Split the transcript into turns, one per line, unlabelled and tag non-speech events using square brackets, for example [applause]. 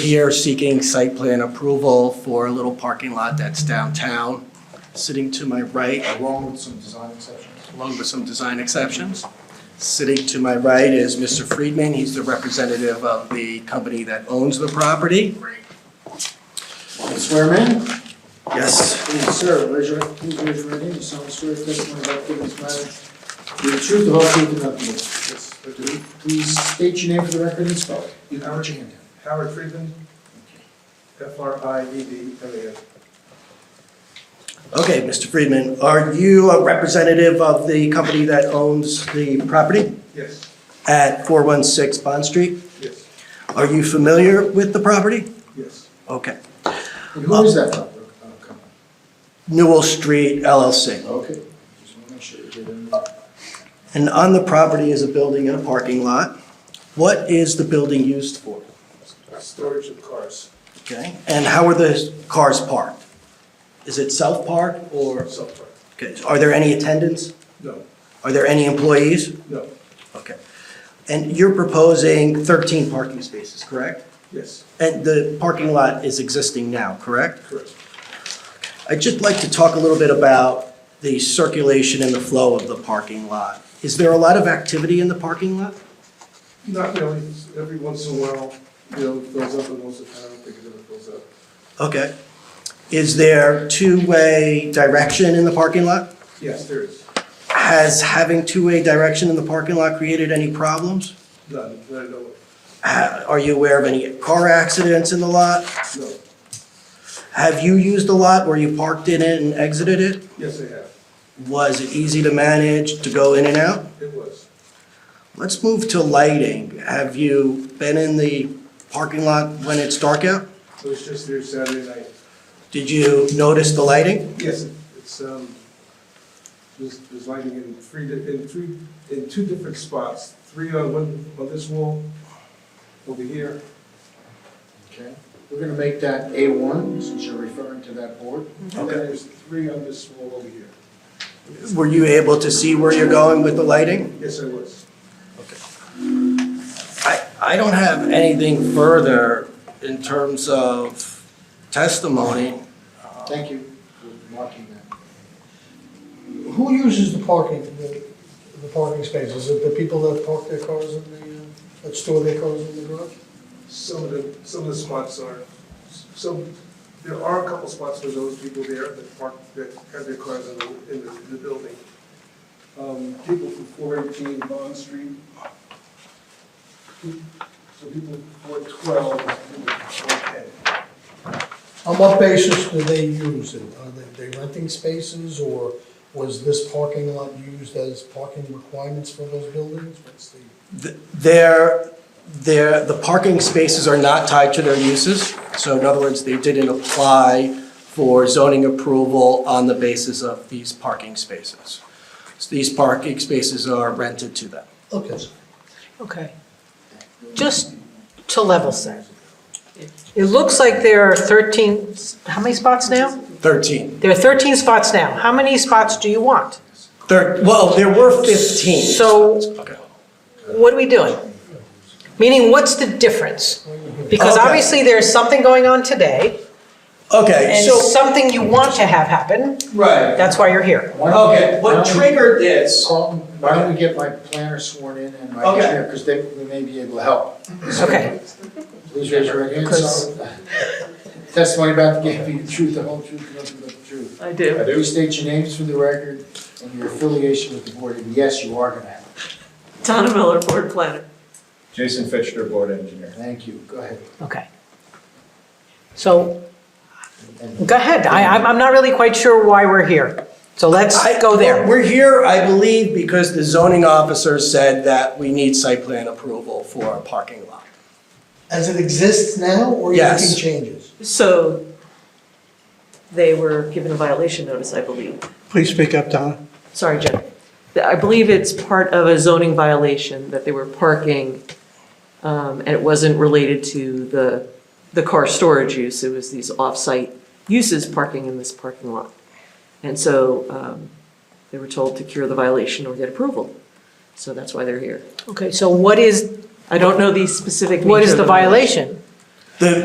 Here seeking site plan approval for a little parking lot that's downtown. Sitting to my right,
along with some design exceptions.
along with some design exceptions. Sitting to my right is Mr. Friedman. He's the representative of the company that owns the property.
Swear man?
Yes.
Please, sir, raise your, please raise your right hand, you solemnly swear the testimony about giving this matter, the truth, the whole truth, and nothing but the truth. Please state your name for the record and spell it. You can put your hand down.
Howard Friedman, F R I E D M A N.
Okay, Mr. Friedman, are you a representative of the company that owns the property
Yes,
at 416 Bond Street?
yes,
Are you familiar with the property?
yes.
Okay.
And who is that proper uh, company?
Newell Street LLC.
Okay. Just want to make sure you get in there.
And on the property is a building and a parking lot. What is the building used for?
Storage of cars,
Okay, and how are the cars parked? Is it self-parked or,
software.
okay, are there any attendants?
No,
Are there any employees?
no,
Okay. And you're proposing 13 parking spaces, correct?
yes,
And the parking lot is existing now, correct?
correct.
I'd just like to talk a little bit about the circulation and the flow of the parking lot. Is there a lot of activity in the parking lot?
Not really, It's every once in a while, you know, it goes up and goes down, I think it ever goes up.
Okay. Is there two-way direction in the parking lot?
Yes, there is,
Has having two-way direction in the parking lot created any problems?
none, not at all,
Ha- Are you aware of any car accidents in the lot?
no.
Have you used the lot where you parked in it and exited it?
Yes, I have,
Was it easy to manage to go in and out?
it was.
Let's move to lighting. Have you been in the parking lot when it's dark out?
It was just there Saturday night.
Did you notice the lighting?
Yes, it's, um, there's, there's lighting in three, di- in three, in two different spots, three on one, on this wall, over here,
Okay. We're going to make that A1, since you're referring to that board.
And then there's three on this wall over here.
Were you able to see where you're going with the lighting?
Yes, I was.
I, I don't have anything further in terms of testimony.
Thank you for Uh, marking that.
Who uses the parking, the, the parking spaces? Is it the people that park their cars in the, uh, that store their cars in the garage?
Some of the, some of the spots are, some, there are a couple spots for those people there that park, that have their cars in the, in the, in the building. Um, people from four eighteen Bond Street. So people four twelve, people four ten.
On what basis do they use it? Are they, they renting spaces or was this parking lot used as parking requirements for those buildings? What's the,
Th- Their, their, the parking spaces are not tied to their uses. So in other words, they didn't apply for zoning approval on the basis of these parking spaces. So These parking spaces are rented to them.
okay,
Okay. Just to level set. It looks like there are 13, how many spots now?
13.
There are 13 spots now. How many spots do you want?
Thir- well, there were 15.
So-
Okay.
What are we doing? Meaning, what's the difference? Because
Okay.
obviously, there's something going on today,
Okay,
and
so,
something you want to have happen,
right.
that's why you're here.
Why don't we-
Okay,
why
what
don't we-
triggered this?
Carlton, why don't we get my planner sworn in and my
Okay.
engineer, because they, they may be able to help.
Okay.
Please raise your right hand,
Because-
solemn- [laughs] testimony about the giving the [laughs] truth, the whole truth, and nothing but the truth.
I do.
Please state your names for the record and your affiliation with the board, and yes, you are gonna have it.
Donna Miller, board planner.
Jason Fitchner, Board Engineer.
Thank you, go ahead.
Okay. So,
And
go ahead. I, I'm- I'm not really quite sure why we're here. So let's
I-
go there.
We're here, I believe, because the zoning officer said that we need site plan approval for a parking lot.
as it exists now or you're
Yes.
making changes?
So they were given a violation notice, I believe.
Please speak up, Donna.
Sorry, Jen. I believe it's part of a zoning violation that they were parking, um, and it wasn't related to the, the car storage use. It was these off-site uses parking in this parking lot. And so um, they were told to cure the violation or get approval. So that's why they're here.
Okay, so what is,
I don't know the specific nature
what is
of
the violation?
The